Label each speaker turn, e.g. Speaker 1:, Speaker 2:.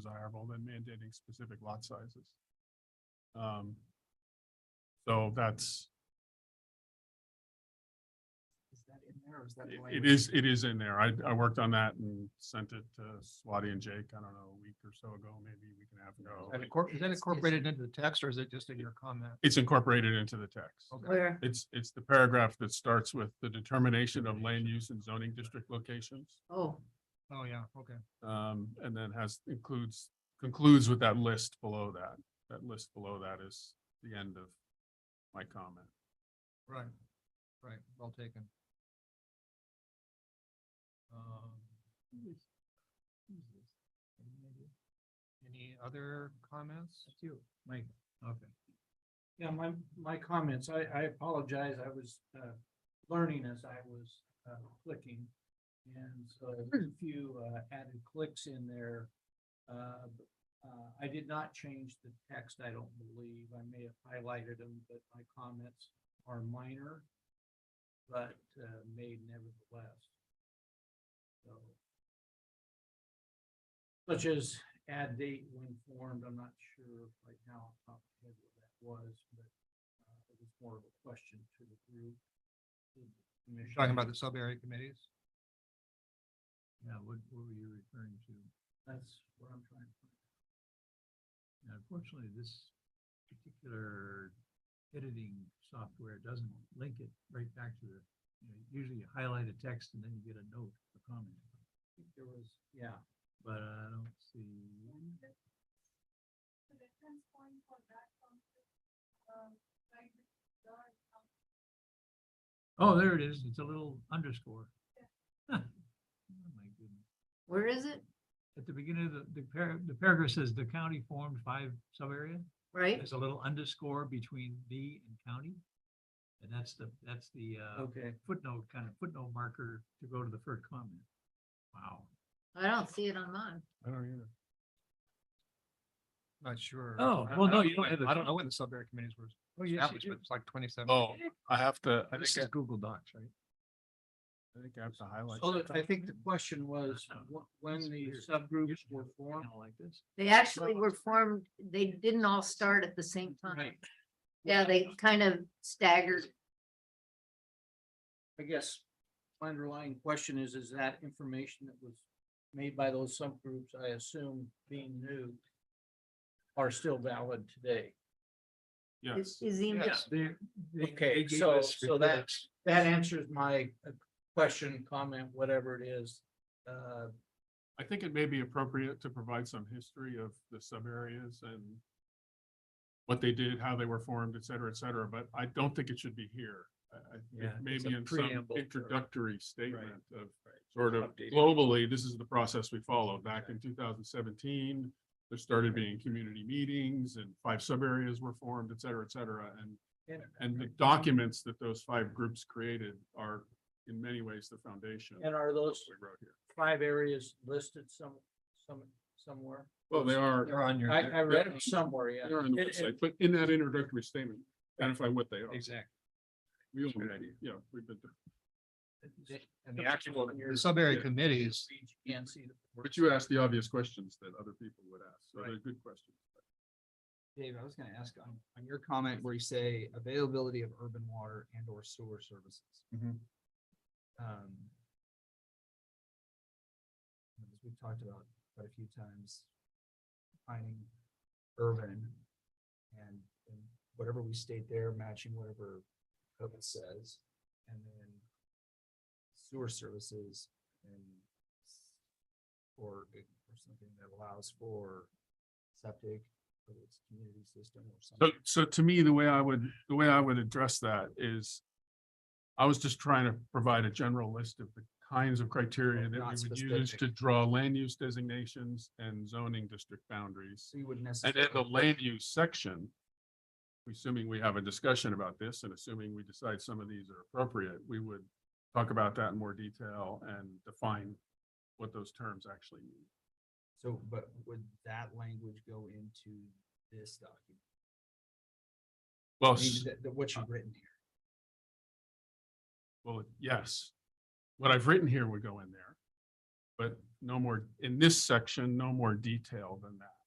Speaker 1: desirable than mandating specific lot sizes. Um, So that's,
Speaker 2: Is that in there or is that?
Speaker 1: it-
Speaker 2: language?
Speaker 1: it is, it is in there. I, I worked on that and sent it to Swati and Jake, I don't know, a week or so ago, maybe a week and a half ago.
Speaker 3: That incor- Is that
Speaker 2: It's- it's-
Speaker 3: incorporated into the text or is it just in your comment?
Speaker 1: It's incorporated into the text.
Speaker 3: Okay,
Speaker 4: Where,
Speaker 1: It's, it's the paragraph that starts with the determination of land use and zoning district locations.
Speaker 4: oh,
Speaker 3: oh, yeah, okay.
Speaker 1: Um, and then has, includes, concludes with that list below that. That list below that is the end of my comment.
Speaker 3: Right, right, well taken. Um, Any other comments? You, Mike. Okay.
Speaker 5: Yeah, my, my comments, I, I apologize, I was, uh, learning as I was, uh, clicking. And so a few, uh, added clicks in there. Uh, b- uh, I did not change the text, I don't believe, I may have highlighted them, but my comments are minor. But, uh, made nevertheless. So. Such as add date when formed, I'm not sure right now off the top of my head what that was, but uh, it was more of a question to the group. to the commission.
Speaker 3: Talking about the sub-area committees?
Speaker 5: Yeah,
Speaker 3: what, what were you referring to?
Speaker 5: That's what I'm trying to. find.
Speaker 3: Unfortunately, this particular editing software doesn't link it right back to the, usually you highlight a text and then you get a note, a comment.
Speaker 5: I think There was, yeah,
Speaker 3: But uh. I don't see.
Speaker 4: Um,
Speaker 3: Oh, there it is. It's a little underscore. Oh, my goodness.
Speaker 4: where is it?
Speaker 3: At the beginning of the, the par- the paragraph says the county formed five sub-area.
Speaker 4: Right?
Speaker 3: There's a little underscore between the and county. And that's the, that's the uh,
Speaker 4: Oh.
Speaker 5: okay,
Speaker 3: footnote, kind of footnote marker to go to the first comment. Wow.
Speaker 4: I don't see it on mine.
Speaker 1: I don't either.
Speaker 2: Not sure.
Speaker 3: Oh,
Speaker 2: I-
Speaker 3: well,
Speaker 2: I
Speaker 3: no, you don't
Speaker 2: I-
Speaker 3: have the-
Speaker 2: I don't know when the sub-area committees were
Speaker 3: Oh, yes,
Speaker 2: established,
Speaker 3: you
Speaker 2: but
Speaker 3: do.
Speaker 2: it's like twenty-seven.
Speaker 1: Oh, I have to, I
Speaker 2: This
Speaker 1: think,
Speaker 2: is Google Docs, right?
Speaker 1: I- I think I have to
Speaker 3: Oh,
Speaker 1: highlight.
Speaker 5: so that- I think the question was wh- when
Speaker 3: That's
Speaker 5: the
Speaker 3: Oh, weird.
Speaker 5: subgroups
Speaker 3: Usually
Speaker 5: were
Speaker 3: it's
Speaker 5: formed.
Speaker 3: kinda Like this.
Speaker 4: They actually were formed, they didn't all start at the same time.
Speaker 5: Right.
Speaker 4: Yeah, they kind of staggered.
Speaker 5: I guess my underlying question is, is that information that was made by those subgroups, I assume being new, are still valid today?
Speaker 1: Yes,
Speaker 4: Is, is the-
Speaker 3: Yes, they, they- they
Speaker 5: Okay,
Speaker 3: gave
Speaker 5: so-
Speaker 3: us
Speaker 5: so that-
Speaker 3: reports.
Speaker 5: That answers my uh, question, comment, whatever it is. Uh,
Speaker 1: I think it may be appropriate to provide some history of the subareas and what they did, how they were formed, et cetera, et cetera, but I don't think it should be here. I- I- it
Speaker 2: Yeah,
Speaker 1: may
Speaker 2: it's
Speaker 1: be
Speaker 2: a
Speaker 1: in some
Speaker 2: preamble or-
Speaker 1: introductory statement of
Speaker 2: Right.
Speaker 1: sort of
Speaker 2: Updated.
Speaker 1: globally, this is the process we followed. Back in two thousand seventeen, there started being community meetings and five subareas were formed, et cetera, et cetera, and
Speaker 5: And
Speaker 1: and the documents that those five groups created are in many ways the foundation.
Speaker 5: and are
Speaker 1: of what
Speaker 5: those
Speaker 1: we wrote here.
Speaker 5: five areas listed some, some, somewhere?
Speaker 1: Well, they are,
Speaker 2: They're on your.
Speaker 5: I, I read them somewhere, yeah.
Speaker 1: They're on the
Speaker 5: It- it-
Speaker 1: website, but in that introductory statement, identify what they are.
Speaker 2: Exactly.
Speaker 1: We only-
Speaker 2: Good idea.
Speaker 1: Yeah, we've been,
Speaker 5: it-
Speaker 2: And the actual,
Speaker 5: Your-
Speaker 3: The sub-area
Speaker 1: yeah.
Speaker 3: committees,
Speaker 5: You can't see the.
Speaker 1: but you asked the obvious questions that other people would ask, so they're good questions.
Speaker 2: Dave, I was gonna ask on, on your comment where you say availability of urban water and or sewer services.
Speaker 1: Mhm.
Speaker 2: Um. as We've talked about quite a few times. Finding urban and, and whatever we state there, matching whatever code says, and then sewer services and or, or something that allows for septic whether it's community system or
Speaker 1: So,
Speaker 2: something.
Speaker 1: so to me, the way I would, the way I would address that is I was just trying to provide a general list of the kinds of criteria that
Speaker 2: Not
Speaker 1: we would use
Speaker 2: specific.
Speaker 1: to draw land use designations and zoning district boundaries.
Speaker 2: So you wouldn't
Speaker 1: And
Speaker 2: necessarily.
Speaker 1: in the land use section, assuming we have a discussion about this and assuming we decide some of these are appropriate, we would talk about that in more detail and define what those terms actually mean.
Speaker 2: So, but would that language go into this document?
Speaker 1: Well,
Speaker 2: I mean,
Speaker 1: Oh, s-
Speaker 2: th- th- what you've written here.
Speaker 1: well, yes, what I've written here would go in there. But no more, in this section, no more detail than that.